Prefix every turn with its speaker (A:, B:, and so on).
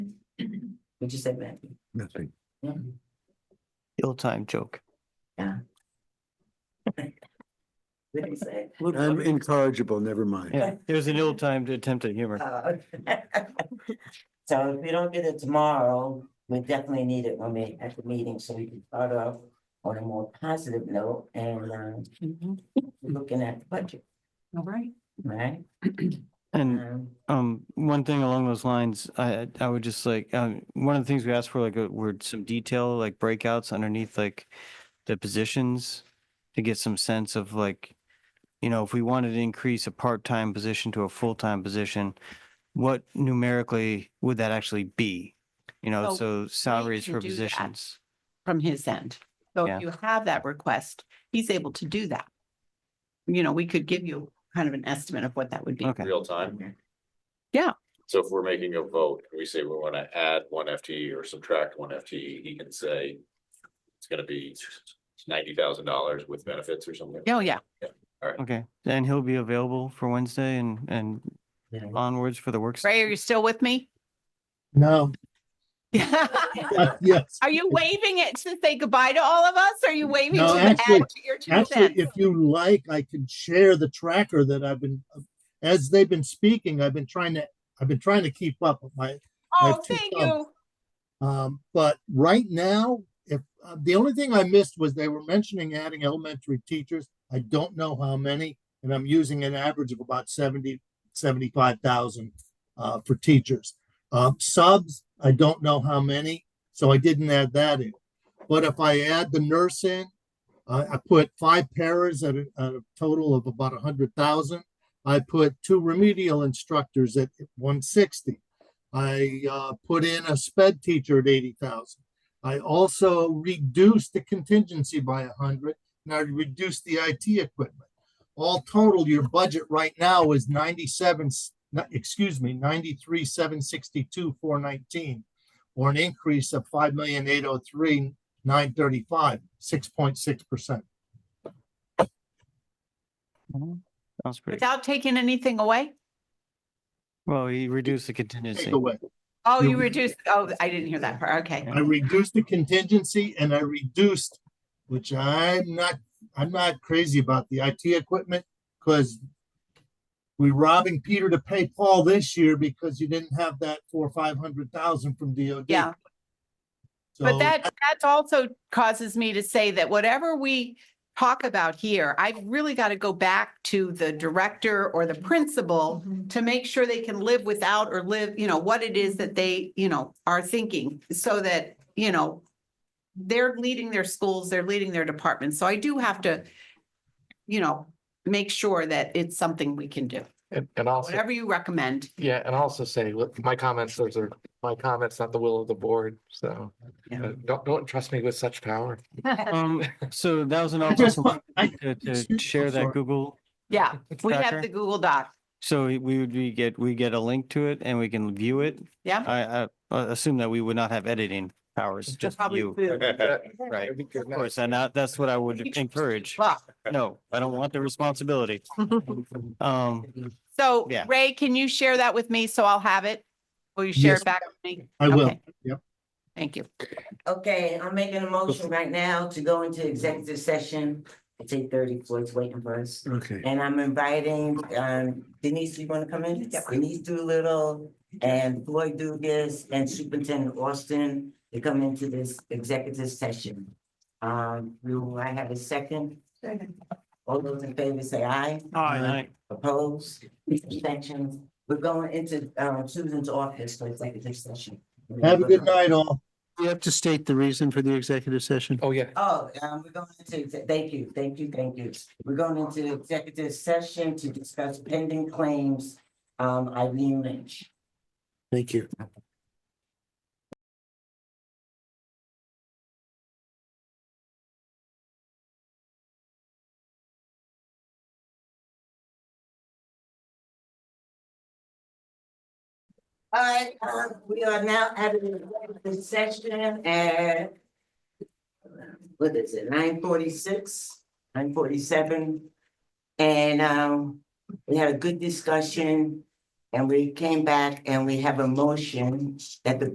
A: you say, Matt?
B: Nothing.
A: Yeah.
C: The old time joke.
A: What do you say?
B: I'm incorrigible, never mind.
C: Yeah, it was Um, an ill time to attempt at humor.
A: Uh, So if we don't get it tomorrow, we definitely need it when we at the meeting, so we can start off on a more positive note and um,
D: Mhm.
A: looking at the budget,
D: All right.
A: right?
C: And
A: Um,
C: um, one thing along those lines, I I would just like, um, one of the things we asked for like uh, were some detail, like breakouts underneath like the positions to get some sense of like, you know, if we wanted to increase a part-time position to a full-time position, what numerically would that actually be? You know,
D: So
C: so salaries
D: Oh, can
C: for
D: do that.
C: positions.
D: From his end. So
C: Yeah.
D: if you have that request, he's able to do that. You know, we could give you kind of an estimate of what that would be.
C: Okay.
E: real time.
A: okay.
E: So if we're making a vote, and we say we want to add one FTE or subtract one FTE, he can say it's gonna be ninety thousand dollars with benefits or something.
D: Oh, yeah.
C: Okay, and he'll be available for Wednesday and and
A: Yeah.
C: onwards for the work. session.
D: Ray, are you still with me?
F: No, yes.
D: Are you waving it to say goodbye to all of us? Are you waving
F: No,
D: to add
F: actually-
D: to your two
F: Actually,
D: cents?
F: if you like, I can share the tracker that I've been, as they've been speaking, I've been trying to, I've been trying to keep up with my, I have
D: Oh,
F: two
D: thank
F: thumbs.
D: you.
F: um, but right now, if, uh, the only thing I missed was they were mentioning adding elementary teachers. I don't know how many, and I'm using an average of about 70, 75,000 uh, for teachers. Uh, subs, I don't know how many, so I didn't add that in. But if I add the nurse in, I, I put five paras at a, at a total of about 100,000. I put two remedial instructors at 160. I uh, put in a sped teacher at 80,000. I also reduced the contingency by 100 and I reduced the IT equipment. All total, your budget right now is 97, s- no, excuse me, 93, 762, 419, or an increase of 5,803, 935, 6.6%.
C: Sounds pretty,
D: Without taking anything away?
C: well, he reduced the contingency.
F: Takeaway.
D: Oh, you
F: No.
D: reduced, oh, I didn't hear that part. Okay.
F: I reduced the contingency and I reduced, which I'm not, I'm not crazy about the IT equipment, because we're robbing Peter to pay Paul this year because you didn't have that four, or five hundred thousand from DOD.
D: Yeah.
F: So-
D: But that, that also causes me to say that whatever we talk about here, I've really got to go back to the director or the principal to make sure they can live without or live, you know, what it is that they, you know, are thinking so that, you know, they're leading their schools, they're leading their departments. So I do have to, you know, make sure that it's something we can do.
G: And, and also,
D: Whatever you recommend.
G: yeah, and also say, look, my comments, those are my comments, not the will of the board, so.
D: Yeah.
G: uh, Don't, don't trust me with such power.
C: Um, so that was an
F: I just
C: opportunity
F: want- I-
C: to,
F: excuse
C: to
F: me,
C: share
F: I'm
C: that
F: sorry.
C: Google.
D: Yeah, we have
C: tracker.
D: the Google Doc.
C: So we would, we get, we get a link to it and we can view it.
D: Yeah.
C: I, I I assume that we would not have editing powers, just
D: Probably
C: you,
D: food.
C: right?
G: That'd be
C: Of
G: good.
C: course, and that, that's what I would encourage.
D: Well,
C: No, I don't want the responsibility. Um,
D: So
C: Yeah.
D: Ray, can you share that with me? So I'll have it. Will you share
F: Yes.
D: it back with me?
F: I will,
D: Okay.
F: yep.
D: Thank you.
A: Okay, I'm making a motion right now to go into executive session. It's eight thirty, Floyd's waiting for us.
B: Okay.
A: And I'm inviting, um, Denise, you wanna come in? Denise Doolittle and Floyd Dugas and Superintendent Austin to come into this executive session. Um, will I have a second? All those in favor say aye.
C: I-
A: Opposed, abstentions. We're going into, um, Susan's office for executive session.
F: Have a good night all.
B: You have to state the reason for the executive session.
G: Oh, yeah.
A: Oh, um, we're going into, exe- thank you, thank you, thank you. We're going into executive session to discuss pending claims, um, Eileen Lynch.
B: Thank you.
A: All right, um, we are now at an executive session at what is it, nine forty-six, nine forty-seven? And, um, we had a good discussion and we came back and we have a motion that the